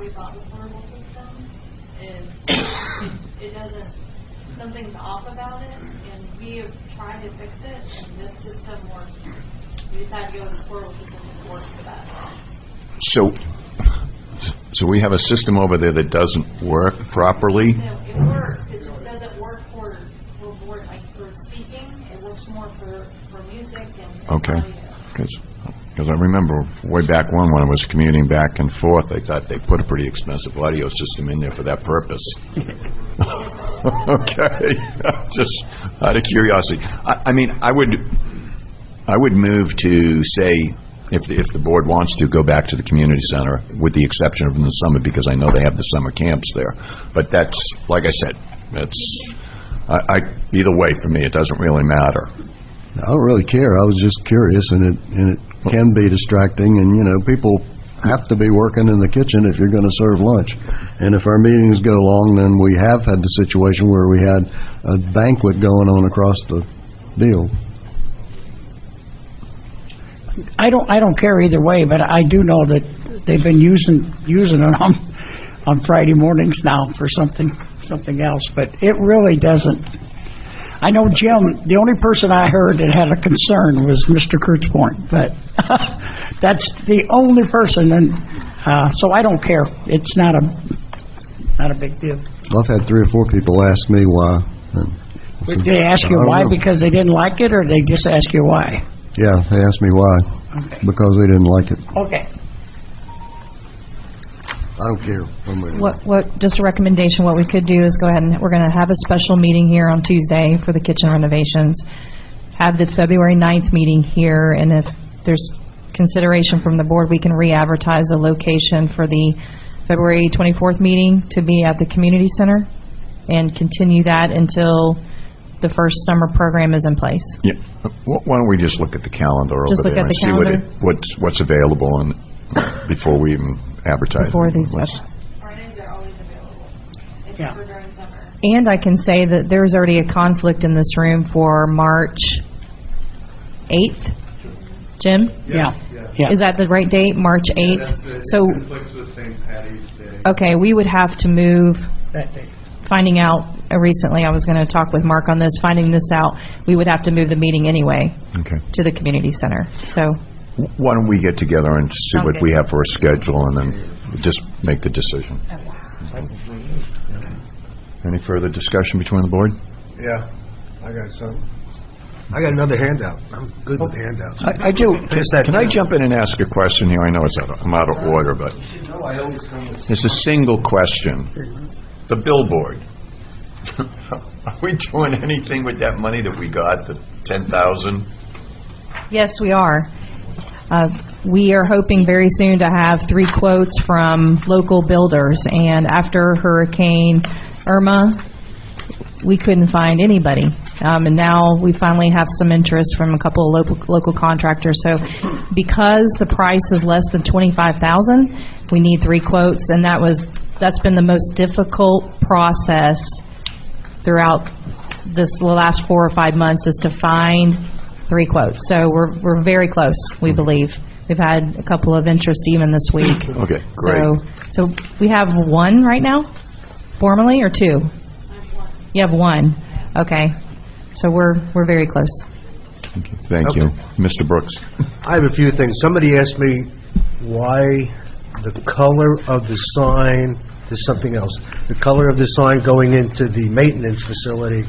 we bought the portable system is, it- it doesn't, something's off about it, and we have tried to fix it, and this system works. We decided to go with the portable system, it works the best. So, so we have a system over there that doesn't work properly? No, it works, it just doesn't work for, for board, like for speaking, it works more for, for music and. and Okay. audio. Because I remember way back when, when I was commuting back and forth, I thought they put a pretty expensive audio system in there for that purpose. Okay, just out of curiosity. I, I mean, I would, I would move to say, if, if the board wants to, go back to the community center, with the exception of in the summer, because I know they have the summer camps there. But that's, like I said, that's, I, I, either way, for me, it doesn't really matter. I don't really care. I was just curious, and it, and it can be distracting, and, you know, people have to be working in the kitchen if you're gonna serve lunch. And if our meetings go long, then we have had the situation where we had a banquet going on across the deal. I don't, I don't care either way, but I do know that they've been using, using it on, on Friday mornings now for something, something else, but it really doesn't. I know Jim, the only person I heard that had a concern was Mr. Kurtzborn, but that's the only person, and, uh, so I don't care. It's not a, not a big deal. I've had three or four people ask me why, and, Did they ask you why because they didn't like it, or they just ask you why? yeah, they asked me why, because they didn't like it. Okay. I don't care. one way or the other. What, what, just a recommendation, what we could do is go ahead and, we're going to have a special meeting here on Tuesday for the kitchen renovations. Have the February 9th meeting here, and if there's consideration from the board, we can re-advertise a location for the February 24th meeting to be at the community center and continue that until the first summer program is in place. Yeah, wh- why don't we just look at the calendar over Just look there and at the see what it, calendar? what's, what's available and, before we even advertise? Before the- Let's- Fridays are always available, Yeah. except for during summer. And I can say that there's already a conflict in this room for March 8th. Jim? Yeah, yeah. Is that the right date, March Yeah, 8th? that's the- So, It conflicts with St. Patty's Day. okay, we would have to move, That thing. finding out, uh, recently, I was going to talk with Mark on this, finding this out, we would have to move the meeting anyway Okay. to the community center. So, Wh- Why don't we get together and see Sounds what good. we have for a schedule and then just make the decision? Any further discussion between the board? Yeah, I got some. Oh. I got another handout. I'm good with handouts. I, I do. Just that- Can I jump in and ask a question here? I know it's out, of- I'm out of order, but No, I always come with it's a single question. The billboard. Are we doing anything with that money that we got, the 10,000? yes, we are. Uh, We are hoping very soon to have three quotes from local builders, and after Hurricane Irma, we couldn't find anybody. Um, And now we finally have some interest from a couple of local- local contractors. So because the price is less than 25,000, we need three quotes, and that was, that's been the most difficult process throughout this last four or five months, is to find three quotes. So we're, we're very close, we Mm-hmm. believe. We've had a couple of interest even this week. Okay, great. So, so we have one right now, formally, or two? You have one, okay. So we're, we're very close. Thank you. Mr. Brooks? I have a few things. Somebody asked me why the color of the sign, there's something else. The color of the sign going into the maintenance facility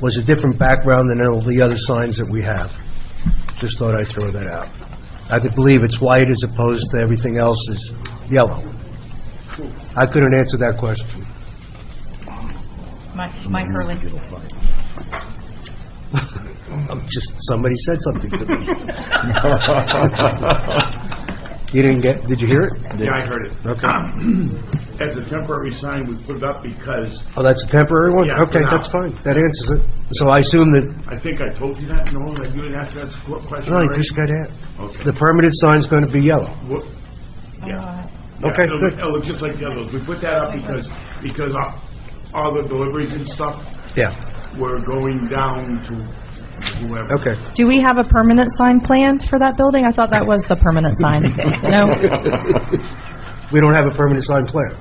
was a different background than all the other signs that we have. Just thought I'd throw that out. I could believe it's white as opposed to everything else is yellow. I couldn't answer that question. Mike Hurley. I'm just, somebody said something to me. You didn't get, did you hear it? Yeah, I heard it. That's a temporary sign, we put it up because, Oh, that's a temporary one? Yeah, for Okay, now. that's fine. That answers it. So I assume that, I think I told you that, no, I didn't ask that qu- question no, you already? just got it. Okay. The permanent sign's going to be yellow. What- Yeah. Yeah, Okay, it'll- good. It'll look just like the others. We put that up because, because all- all the deliveries and stuff Yeah, were going down to whoever. okay. Do we have a permanent sign planned for that building? I thought that was the permanent sign. No? we don't have a permanent sign plan.